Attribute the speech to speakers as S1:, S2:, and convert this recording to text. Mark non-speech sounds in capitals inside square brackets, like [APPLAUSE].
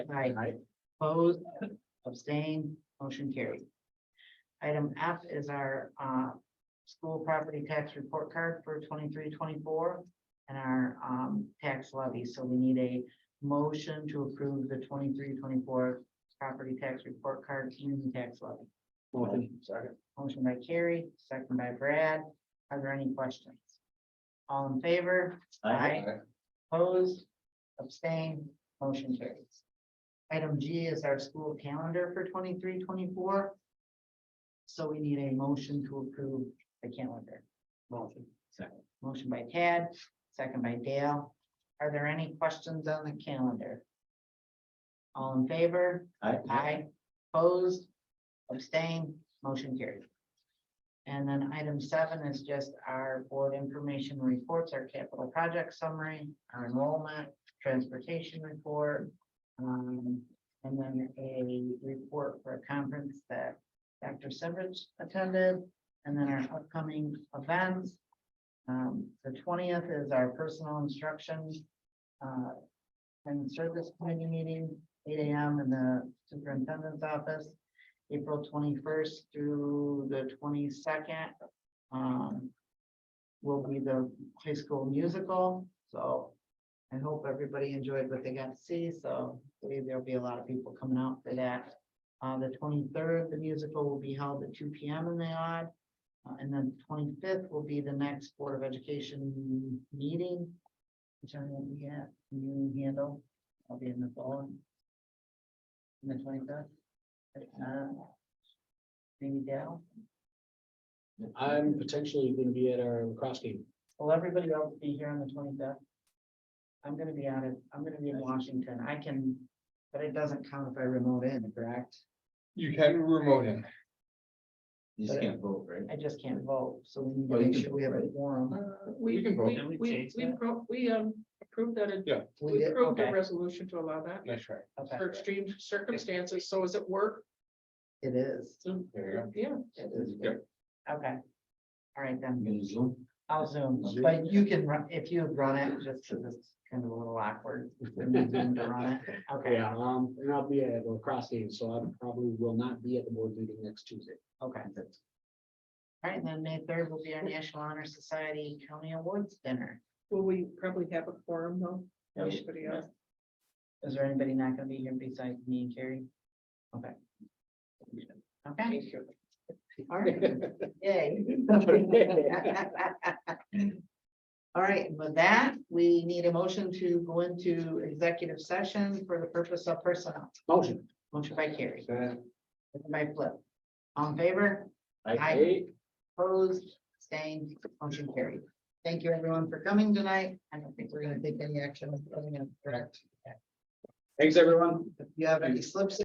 S1: Aye.
S2: Aye.
S1: Opposed, abstained, motion carried. Item F is our uh, school property tax report card for 23-24 and our um, tax levy. So we need a motion to approve the 23-24 property tax report card and tax levy.
S2: Motion, second.
S1: Motion by Carrie, second by Brad. Are there any questions? All in favor? Aye. Opposed, abstained, motion carries. Item G is our school calendar for 23-24. So we need a motion to approve the calendar.
S2: Motion, second.
S1: Motion by Tad, second by Dale. Are there any questions on the calendar? All in favor? Aye. Opposed, abstained, motion carried. And then item seven is just our board information reports, our capital project summary, our enrollment, transportation report. um, and then a report for a conference that Dr. Severage attended, and then our upcoming events. Um, the twentieth is our personal instruction, uh, and service committee meeting, eight AM in the superintendent's office. April twenty-first through the twenty-second. Um. Will be the high school musical, so. I hope everybody enjoyed what they got to see, so I believe there'll be a lot of people coming out for that. Uh, the twenty-third, the musical will be held at two P M in the odd. Uh, and then twenty-fifth will be the next Board of Education meeting. Which I won't be at, you handle, I'll be in the phone. And the twenty-fifth. Uh, Maybe Dale,
S3: I'm potentially gonna be at our lacrosse game.
S1: will everybody else be here on the twenty-fifth? I'm gonna be out of, I'm gonna be in Washington, I can, but it doesn't count if I remote in, correct?
S4: You can remote in.
S2: You just can't vote, right?
S1: I just can't vote, so we need
S2: Well,
S1: to
S2: you
S1: make
S2: can
S1: sure we have a
S2: vote.
S1: forum.
S4: You
S5: Uh, We,
S4: can vote.
S5: we,
S4: Can we
S5: we,
S4: change
S5: we
S4: that?
S5: pro- we, um, approved that, it-
S1: We
S5: we
S1: did,
S5: approved
S1: okay,
S5: a resolution to allow that
S4: Nice try.
S1: okay,
S5: for extreme circumstances, so is it work?
S1: it is,
S5: So,
S4: There
S5: Yeah,
S1: it is,
S4: Yep.
S1: okay. All right then,
S2: You can zoom.
S1: I'll zoom,
S2: Zoom.
S1: but you can run, if you run it, just, 'cause it's kind of a little
S2: [LAUGHS]
S1: awkward. for me to run it. Okay,
S3: Yeah, um, and I'll be at the lacrosse game, so I probably will not be at the board meeting next Tuesday.
S1: okay. All right, and then May third will be our National Honor Society County Awards Dinner.
S5: will we probably have a quorum though?
S1: Yeah, we-
S5: Anybody else?
S1: Is there anybody not gonna be here besides me and Carrie? Okay. Okay, all [LAUGHS] right, yay. All right, and with that, we need a motion to go into executive session for the purpose of personnel.
S3: Motion.
S1: Motion by Carrie,
S4: Second.
S1: second by Flip. On favor, Aye. opposed, abstained, motion carried. Thank you everyone for coming tonight. I don't think we're gonna take any action, with anything, correct?
S3: Thanks, everyone.
S1: If you have any slips